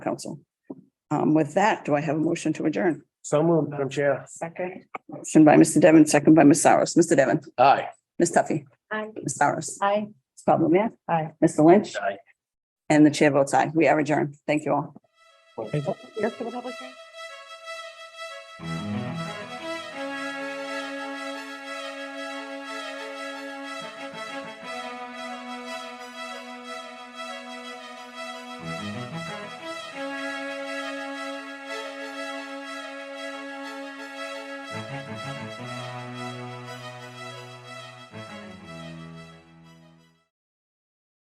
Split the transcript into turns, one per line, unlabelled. council. Um, with that, do I have a motion to adjourn?
So moved, Madam Chair.
Second. Motion by Mr. Devon, second by Ms. Saros. Mr. Devon,
Aye.
Ms. Tuffy,
Aye.
Ms. Saros,
Aye.
Ms. Pablo Mia.
Aye.
Mr. Lynch
Aye.
and the chair votes aye. We are adjourned. Thank you all.